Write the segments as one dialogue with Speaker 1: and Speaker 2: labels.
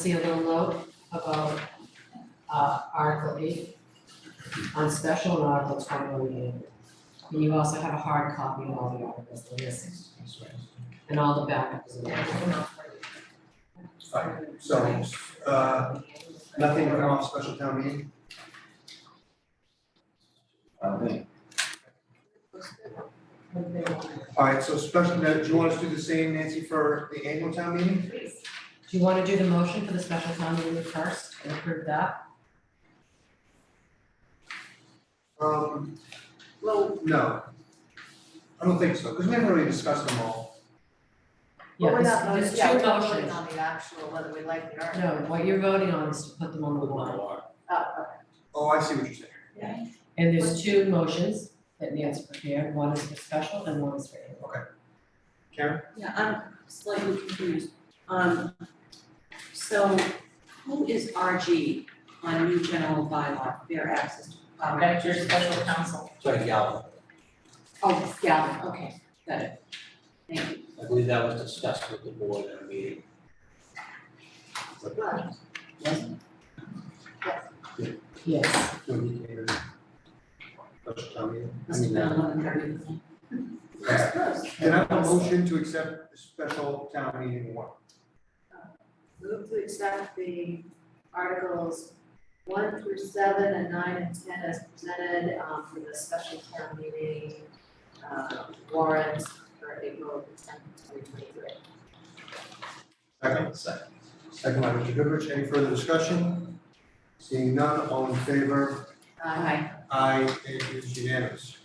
Speaker 1: see a little note about uh Article eight on special and Article twenty-one And you also have a hard copy of all the articles, the list, and all the backups and everything.
Speaker 2: Fine, so, uh, nothing to come off special town meeting? All right, so special, now, do you want us to do the same, Nancy, for the annual town meeting?
Speaker 1: Do you wanna do the motion for the special town meeting first and approve that?
Speaker 2: Um,
Speaker 3: Well,
Speaker 2: no. I don't think so, because we haven't really discussed them all.
Speaker 1: Yeah,
Speaker 3: but we're
Speaker 1: this-
Speaker 3: not voting,
Speaker 1: there's
Speaker 3: yeah,
Speaker 1: two
Speaker 3: we're not voting
Speaker 1: motions.
Speaker 3: on the actual, whether we like the art.
Speaker 1: No, what you're voting on is to put them on the warrant.
Speaker 3: Oh,
Speaker 2: Oh, I see what you're saying.
Speaker 1: And there's two motions that Nancy prepared, one is for special and one is for annual.
Speaker 2: Karen?
Speaker 4: Yeah, I'm slightly confused. Um, so who is RG on new general bylaw, fair access to property?
Speaker 5: That's your special counsel.
Speaker 6: Sorry, Galvin,
Speaker 4: Oh, Galvin, okay, got it. Thank you.
Speaker 6: I believe that was discussed with the board at a meeting.
Speaker 3: okay. Right.
Speaker 1: Yes,
Speaker 2: No, you can't. Special town meeting. I
Speaker 4: Must have
Speaker 2: mean,
Speaker 4: been
Speaker 2: uh,
Speaker 4: eleven thirty.
Speaker 2: okay. Then I have a motion to accept the special town meeting warrant.
Speaker 3: Move to accept the articles one through seven and nine and ten as presented, um, for the special town meeting, uh, warrant for April tenth, twenty twenty-three.
Speaker 2: Second? Second. Second by Mr. Goodrich, any further discussion? Seeing none, all in favor,
Speaker 4: Aye.
Speaker 2: Aye, it is unanimous.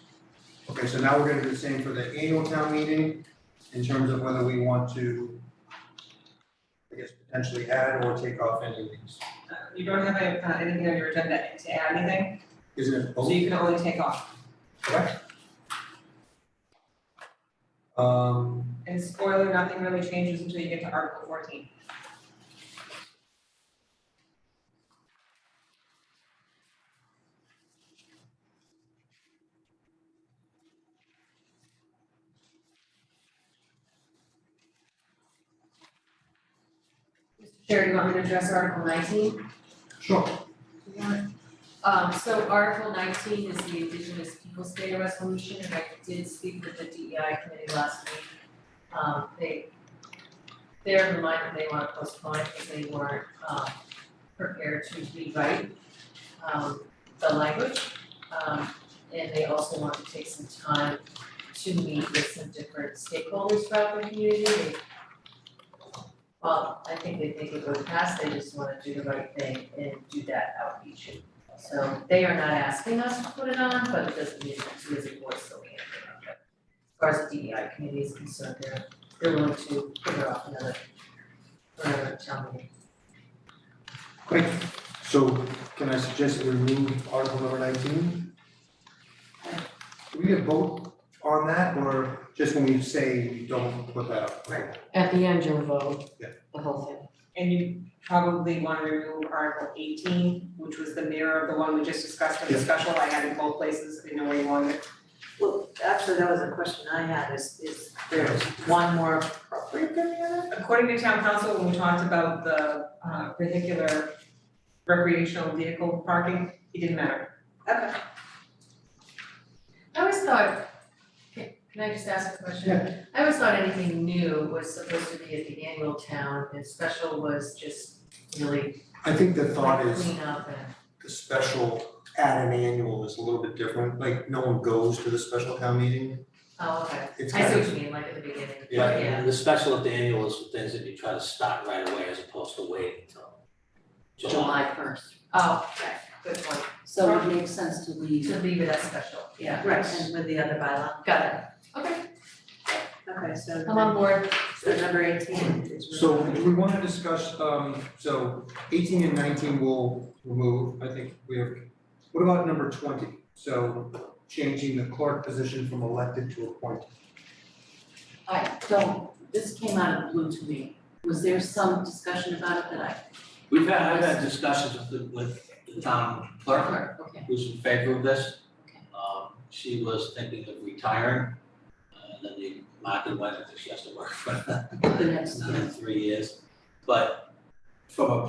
Speaker 2: Okay, so now we're gonna do the same for the annual town meeting in terms of whether we want to, I guess, potentially add or take off any of these.
Speaker 7: You don't have any- uh, anything on your agenda to add anything,
Speaker 2: Isn't it
Speaker 7: so
Speaker 2: both,
Speaker 7: you can only take off.
Speaker 2: correct? Um,
Speaker 7: And spoiler, nothing really changes until you get to Article fourteen.
Speaker 3: Mr. Chair, you want me to address Article nineteen?
Speaker 2: sure,
Speaker 4: Um, so Article nineteen is the Indigenous Peoples Day Resolution, and I did speak with the DEI committee last week. Um, they, they're reminded they want to postpone it because they weren't, um, prepared to rewrite, um, the language. Um, and they also want to take some time to meet with some different stakeholders throughout the community. They- Well, I think they think it would pass, they just want to do the right thing and do that outreach and so they are not asking us to put it on, but it doesn't mean that we as a board still can't put it on. But As far as the DEI committee is concerned, they're, they're willing to put it off another, for another town meeting.
Speaker 2: quick, so can I suggest that we remove article number nineteen? Do we get a vote on that, or just when we say we don't put that up? Right.
Speaker 1: at the end you'll vote
Speaker 2: Yeah.
Speaker 1: the whole thing.
Speaker 7: And you probably want to remove Article eighteen, which was the mirror of the one we just discussed in the
Speaker 2: Yeah.
Speaker 7: special, I had in both places, I know where you wanted it.
Speaker 3: Well, actually, that was a question I had, is, is there's one more appropriate than the other?
Speaker 7: According to town council, when we talked about the uh, vehicular recreational vehicle parking, it didn't matter.
Speaker 3: Okay.
Speaker 4: I always thought, can can I just ask a question? I always thought anything new was supposed to be at the annual town and special was just really
Speaker 2: I think the thought
Speaker 4: like
Speaker 2: is
Speaker 4: clean up and.
Speaker 2: the special at an annual is a little bit different, like no one goes to the special town meeting.
Speaker 4: Oh, okay,
Speaker 2: It's
Speaker 4: I see
Speaker 2: kind
Speaker 4: what
Speaker 2: of,
Speaker 4: you mean, like at the beginning,
Speaker 2: Yeah.
Speaker 4: yeah,
Speaker 6: The special at the annual is things that you try to start right away as opposed to waiting until July.
Speaker 4: July first, oh, okay, good point.
Speaker 3: So it makes sense to leave.
Speaker 4: To leave it as special, yeah.
Speaker 3: Right, and with the other bylaw.
Speaker 4: Got it. Okay.
Speaker 3: Okay, so
Speaker 4: I'm on board.
Speaker 3: so number eighteen is.
Speaker 2: so do we wanna discuss, um, so eighteen and nineteen will remove, I think we have, what about number twenty? So changing the clerk position from elected to appointed.
Speaker 4: Aye.
Speaker 3: So this came out of the blue to me. Was there some discussion about it that I?
Speaker 6: We've had, I've had discussions with the, with the town clerk,
Speaker 3: Okay.
Speaker 6: who's in favor of this.
Speaker 3: Okay.
Speaker 6: Um, she was thinking of retiring, uh, and then the market went, I think she has to work for
Speaker 3: The next, yeah.
Speaker 6: another three years. But from a